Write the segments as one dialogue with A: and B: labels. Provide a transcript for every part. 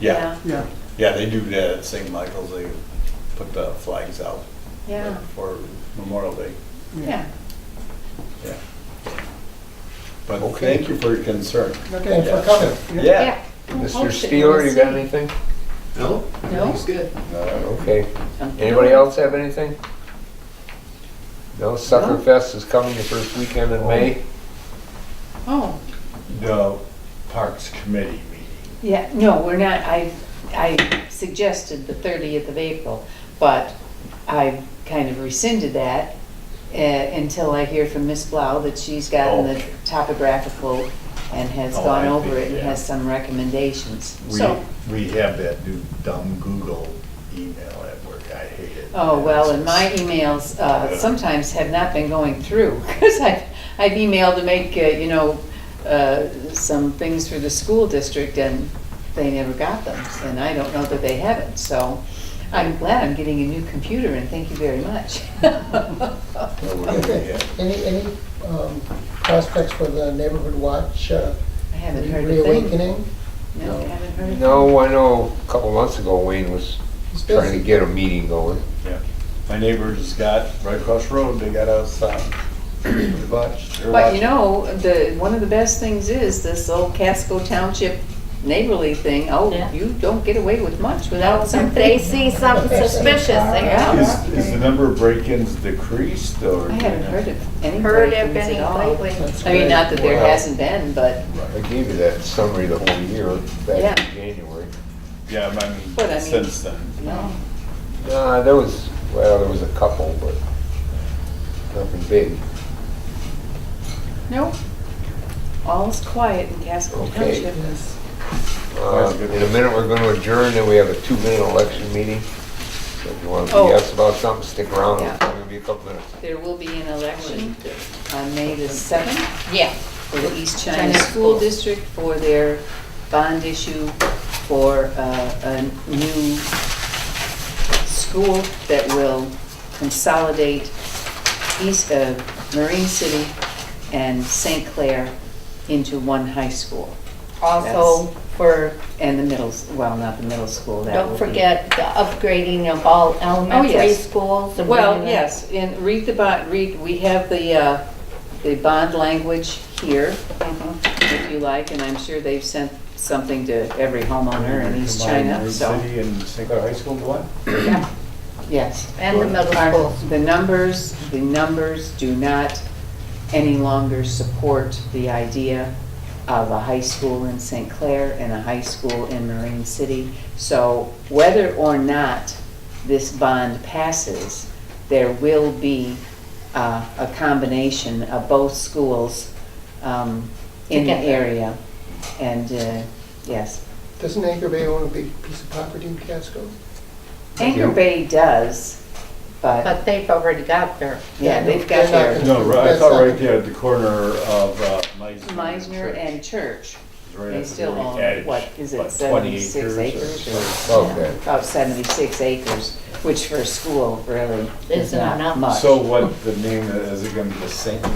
A: Yeah,
B: Yeah,
A: yeah, they do that at St. Michael's, they put the flags out
C: Yeah,
A: for Memorial Day,
C: yeah.
A: yeah. But
D: Okay.
A: thank you for your concern.
D: Thanks for coming.
A: Yeah.
D: Mr. Steeler, you got anything?
E: No,
C: No?
E: everything's good.
A: Uh,
D: Okay. Anybody else have anything? No, Sucker Fest is coming the first weekend in May.
C: Oh,
A: The Parks Committee meeting.
C: yeah, no, we're not, I, I suggested the 30th of April, but I kind of rescinded that uh, until I hear from Ms. Blau that she's gotten the
A: Okay.
C: topographical and has
A: Oh,
C: gone
A: I
C: over
A: think,
C: it and
A: yeah.
C: has some recommendations. So,
A: We, we have that new dumb Google email at work, I hate it.
C: oh, well, and
A: It's-
C: my emails uh,
A: Yeah.
C: sometimes have not been going through, because I've, I've emailed to make, uh, you know, uh, some things for the school district, and they never got them, and I don't know that they haven't, so I'm glad I'm getting a new computer, and thank you very much.
A: Well, we're gonna
D: Okay.
A: get-
D: Any, any um, prospects for the neighborhood watch uh,
C: I haven't heard a thing.
D: reawakening?
C: No, I haven't heard a thing.
F: No, I know a couple months ago Wayne was
D: It's
F: trying to
D: busy.
F: get a meeting going.
A: yeah. My neighbors got, right across the road, they got us, um, watch. they're
C: But you
A: watching.
C: know, the, one of the best things is this old Casco Township neighborly thing, oh,
G: Yeah.
C: you don't get away with much without
G: If
C: something.
G: they see something suspicious, they
C: Yeah.
G: go.
A: Is, is the number of break-ins decreased or?
C: I haven't heard of any
G: Heard
C: break-ins
G: of any
C: at all.
G: lately.
D: That's
C: I mean,
D: great.
C: not that there
F: Wow.
C: hasn't been, but,
F: I gave you that summary the whole year
C: Yeah.
F: back in January.
A: Yeah, I
C: But I
A: mean,
C: mean-
A: since then.
C: no.
F: Uh, there was, well, there was a couple, but nothing big.
C: No. All's quiet in Casco
F: Okay.
C: Township.
F: Uh, In a minute, we're going to adjourn, then we have a two-minute election meeting. So if you want to
C: Oh.
F: BS about something, stick around,
C: Yeah.
F: it's only gonna be a couple minutes.
C: There will be an election on May the 7th
G: Yeah.
C: for the East China
G: China
C: School
G: School.
C: District for their bond issue for uh, a new school that will consolidate East, uh, Marine City and St. Clair into one high school.
G: Also for,
C: And the middle, s- well, not the middle school, that
G: don't
C: would be- Oh,
G: forget the upgrading of all elementary
C: yes.
G: schools. and
C: Well,
G: bringing them-
C: yes, and read the bond, read, we have the, uh, the bond language here,
G: Mm-hmm.
C: if you like, and I'm sure they've sent something to every homeowner in East China,
A: Route
C: so,
A: City and St. Clair High School, what?
C: yes.
G: And the middle
C: Our-
G: schools.
C: The numbers, the numbers do not any longer support the idea of a high school in St. Clair and a high school in Marine City. So whether or not this bond passes, there will be uh, a combination of both schools um, in the
G: Together.
C: area. And, uh, yes,
D: Doesn't Anchor Bay own a big piece of property in Casco?
C: Anchor Bay does, but,
G: But they've already got their.
C: yeah, they've
D: they're
C: got
D: not
C: their.
D: gonna
A: No, right- I
D: That's
A: thought
D: not-
A: right there at the corner of uh, Meisner.
C: Meisner
A: Church.
C: and Church.
A: Right
C: They
A: after
C: still
A: we
C: own,
A: added,
C: what, is it
A: like, 20
C: 76 acres?
A: or
C: or-
F: Okay.
C: About 76 acres, which for a school really is
G: Isn't
C: not
G: enough.
C: much.
A: So what, the name, is it gonna be the St.
C: Uh,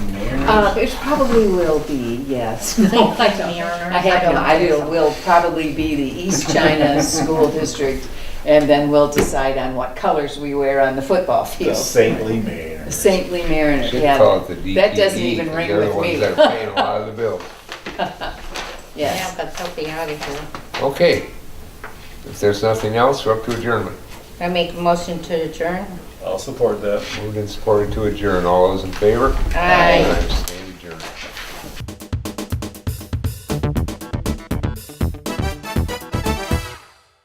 A: Mary's?
C: It probably will be, yes. No, I don't- I have no idea. It will probably be the East China School District, and then we'll decide on what colors we wear on the football
A: The
C: field.
A: Saintly Mariners.
C: Saintly Mariner,
F: Should
C: yeah.
F: call it the DTE.
C: That doesn't even ring
F: They're the
C: with
F: ones
C: me.
F: that are paying a lot of the bills.
G: Yeah,
C: Yes.
G: but they'll be out of here.
F: Okay. If there's nothing else, we're up to adjournment.
G: I make a motion to adjourn.
A: I'll support that.
F: Moved and supported to adjourn. All those in favor?
G: Aye.
F: Aye.